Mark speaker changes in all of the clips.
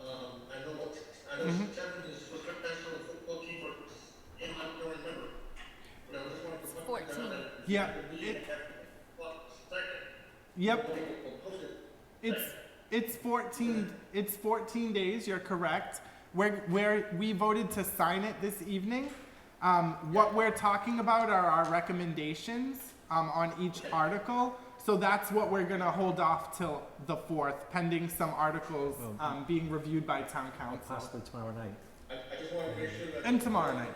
Speaker 1: Um,
Speaker 2: Mm-hmm. Yeah, it, yep. It's, it's fourteen, it's fourteen days, you're correct. We're, we're, we voted to sign it this evening. Um, what we're talking about are our recommendations, um, on each article. So that's what we're gonna hold off till the fourth, pending some articles, um, being reviewed by town council.
Speaker 3: possibly tomorrow night.
Speaker 1: I, I just wanna make sure that.
Speaker 2: And tomorrow night.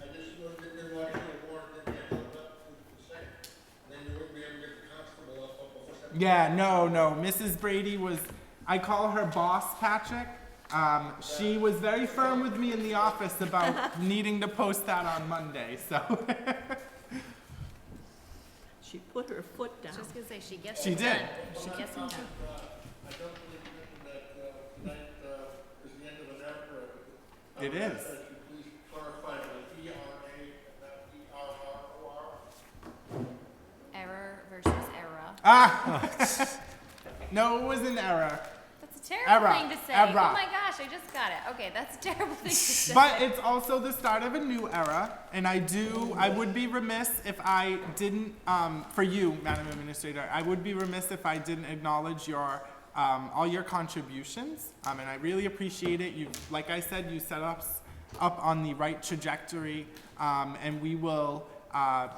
Speaker 1: I just wanted to, didn't want to get the warrant in there, but the second, then you wouldn't be able to get the constable up, up, up.
Speaker 2: Yeah, no, no. Mrs. Brady was, I call her boss, Patrick. Um, she was very firm with me in the office about needing to post that on Monday, so
Speaker 4: She put her foot down.
Speaker 5: I was gonna say, she gets
Speaker 2: Oh. she
Speaker 5: it
Speaker 2: did.
Speaker 5: done. She gets it done.
Speaker 1: I don't believe that, uh, tonight, uh, is the end of an era.
Speaker 2: It
Speaker 1: Um,
Speaker 2: is.
Speaker 1: If you please clarify the E R A, not E R R O R.
Speaker 5: Error versus error.
Speaker 2: Ah! no, it was an error.
Speaker 5: That's a terrible
Speaker 2: Error,
Speaker 5: thing to say.
Speaker 2: error.
Speaker 5: Oh my gosh, I just got it. Okay, that's a terrible thing to say.
Speaker 2: But it's also the start of a new era, and I do, I would be remiss if I didn't, um, for you, Madam Administrator, I would be remiss if I didn't acknowledge your, um, all your contributions, um, and I really appreciate it. You, like I said, you set us up on the right trajectory, um, and we will, uh,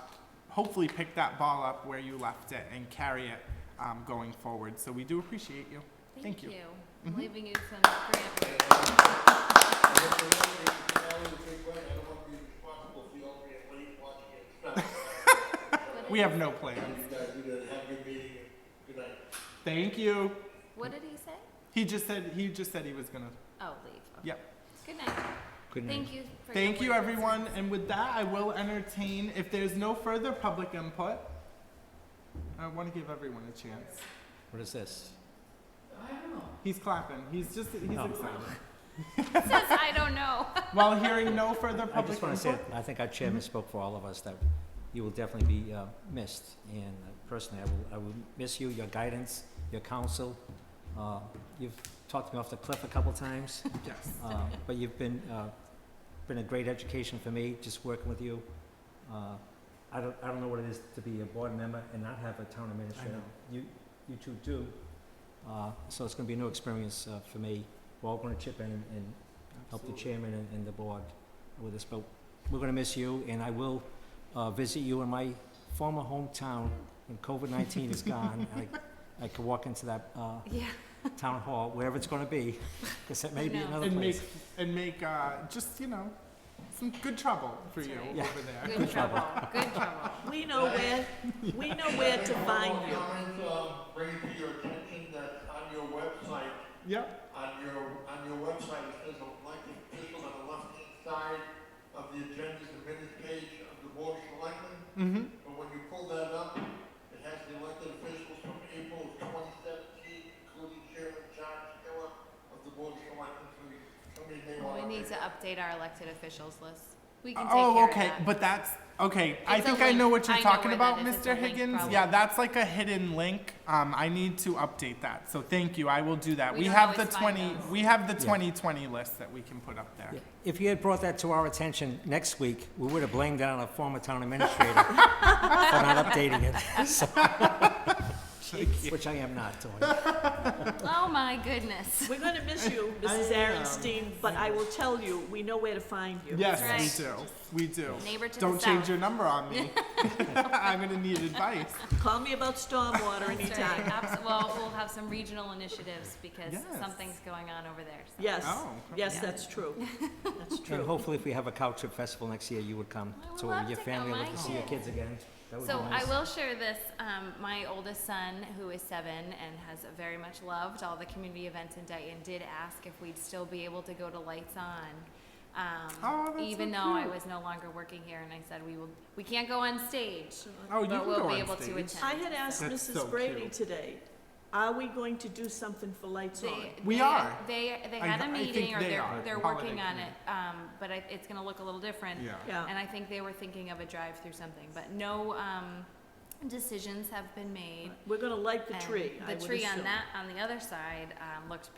Speaker 2: hopefully pick that ball up where you left it and carry it, um, going forward. So we do appreciate you. Thank you. Mm-hmm.
Speaker 5: I'm leaving you some preamble.
Speaker 1: And if you're not, if you can only take one, I don't want to be responsible if you only have one watching it.
Speaker 2: We have no plans.
Speaker 1: You guys, you guys have a good meeting, and good night.
Speaker 2: Thank you.
Speaker 5: What did he say?
Speaker 2: He just said, he just said he was gonna,
Speaker 5: Oh, leave. Okay.
Speaker 2: yep.
Speaker 5: Good night.
Speaker 3: Good night.
Speaker 5: Thank you. for your
Speaker 2: Thank you,
Speaker 5: words.
Speaker 2: everyone, and with that, I will entertain, if there's no further public input, I want to give everyone a chance.
Speaker 3: What is this?
Speaker 2: He's clapping, he's just, he's
Speaker 3: Oh.
Speaker 2: excited.
Speaker 5: It says, I don't know.
Speaker 2: While hearing no further
Speaker 3: I
Speaker 2: public
Speaker 3: just want to say,
Speaker 2: input,
Speaker 3: I think our chairman
Speaker 5: Mm-hmm.
Speaker 3: spoke for all of us, that you will definitely be uh, missed. And uh, personally, I will, I will miss you, your guidance, your counsel. Uh, You've talked me off the cliff a couple times,
Speaker 2: yes,
Speaker 3: uh, but you've been, uh, been a great education for me, just working with you. Uh, I don't, I don't know what it is to be a board member and not have a town
Speaker 2: I
Speaker 3: administrator.
Speaker 2: know.
Speaker 3: You, you two do. Uh, So it's going to be a new experience uh, for me. We're all going to chip in and help the
Speaker 2: Absolutely.
Speaker 3: chairman and, and the board with this, but we're gonna miss you, and I will, uh, visit you in my former hometown when COVID nineteen is gone. and I, I could walk into that, uh,
Speaker 5: Yeah.
Speaker 3: town hall, wherever it's gonna be, cause it may be
Speaker 5: No.
Speaker 3: another
Speaker 2: And make,
Speaker 3: place.
Speaker 2: and make, uh, just, you know, some good trouble for
Speaker 5: That's
Speaker 2: you
Speaker 5: right.
Speaker 2: over
Speaker 3: Yeah.
Speaker 2: there.
Speaker 5: Good trouble. Good trouble.
Speaker 4: We know where, we know where to find you.
Speaker 1: Comment, uh, bring it to your attention that on your website,
Speaker 2: Yep,
Speaker 1: on your, on your website, it says elected officials on the left-hand side of the agenda, the minutes page of the board of selectmen.
Speaker 2: mhm,
Speaker 1: But when you pull that up, it has the elected officials from April of twenty seventeen, including Chairman John Taylor of the board of selectmen, so you- somebody may want to.
Speaker 5: We need to update our elected officials list. We can take care
Speaker 2: oh,
Speaker 5: of
Speaker 2: okay,
Speaker 5: that.
Speaker 2: but that's, okay, I
Speaker 5: It's a
Speaker 2: think I know
Speaker 5: link.
Speaker 2: what you're
Speaker 5: I know
Speaker 2: talking
Speaker 5: where that
Speaker 2: about,
Speaker 5: is. It's a
Speaker 2: Mr.
Speaker 5: link
Speaker 2: Higgins.
Speaker 5: problem.
Speaker 2: Yeah, that's like a hidden link, um, I need to update that, so thank you, I will do that.
Speaker 5: We
Speaker 2: We
Speaker 5: don't
Speaker 2: have the
Speaker 5: always find
Speaker 2: twenty,
Speaker 5: those.
Speaker 2: we have the
Speaker 3: Yeah.
Speaker 2: twenty twenty list that we can put up there.
Speaker 3: Yeah. If you had brought that to our attention next week, we would've blamed that on our former town administrator for not updating it, so- Which I am not doing.
Speaker 5: Oh, my goodness.
Speaker 4: We're gonna miss you, Mrs. Aaronstein, but I will tell you, we know where to find you.
Speaker 2: Yes,
Speaker 5: That's
Speaker 2: we do. We do.
Speaker 5: Neighbor to the
Speaker 2: Don't change
Speaker 5: south.
Speaker 2: your number on me. I'm gonna need advice.
Speaker 4: Call me about stormwater
Speaker 5: That's right.
Speaker 4: anytime.
Speaker 5: Abs- Well, we'll have some regional initiatives because
Speaker 2: Yes.
Speaker 5: something's going on over there. so.
Speaker 4: Yes,
Speaker 2: Oh,
Speaker 4: yes,
Speaker 2: yeah.
Speaker 4: that's true. That's
Speaker 3: And
Speaker 4: true.
Speaker 3: hopefully, if we have a cow trip festival next year, you would come.
Speaker 5: I would
Speaker 3: So
Speaker 5: love
Speaker 3: your
Speaker 5: to go,
Speaker 3: family would
Speaker 5: my
Speaker 3: love to see your
Speaker 5: kids.
Speaker 3: kids again. That would be
Speaker 5: So I
Speaker 3: nice.
Speaker 5: will share this. Um, my oldest son, who is seven and has very much loved all the community events in Dayton, did ask if we'd still be able to go to Lights On. Um,
Speaker 2: Oh, that's so
Speaker 5: even though I
Speaker 2: cute.
Speaker 5: was no longer working here, and I said we will, we can't go on stage,
Speaker 2: Oh, you
Speaker 5: but
Speaker 2: can
Speaker 5: we'll
Speaker 2: go
Speaker 5: be
Speaker 2: on
Speaker 5: able to
Speaker 2: stage.
Speaker 5: attend.
Speaker 4: I had asked
Speaker 2: That's so
Speaker 4: Mrs. Brady
Speaker 2: cute.
Speaker 4: today, are we going to do something for Lights On?
Speaker 5: They,
Speaker 2: We
Speaker 5: they,
Speaker 2: are.
Speaker 5: They they
Speaker 2: I
Speaker 5: had
Speaker 2: know-
Speaker 5: a
Speaker 2: I think
Speaker 5: meeting, or
Speaker 2: they
Speaker 5: they
Speaker 2: are.
Speaker 5: are they're
Speaker 2: Holiday
Speaker 5: working on
Speaker 2: committee.
Speaker 5: it, um, but I, it's gonna look a little different.
Speaker 2: Yeah.
Speaker 4: Yeah,
Speaker 5: And I think they were thinking of a drive-through something, but no, um, decisions have been made.
Speaker 4: we're gonna light the
Speaker 5: And
Speaker 4: tree, I would
Speaker 5: The tree on
Speaker 4: assume.
Speaker 5: that, on the other side, um, looked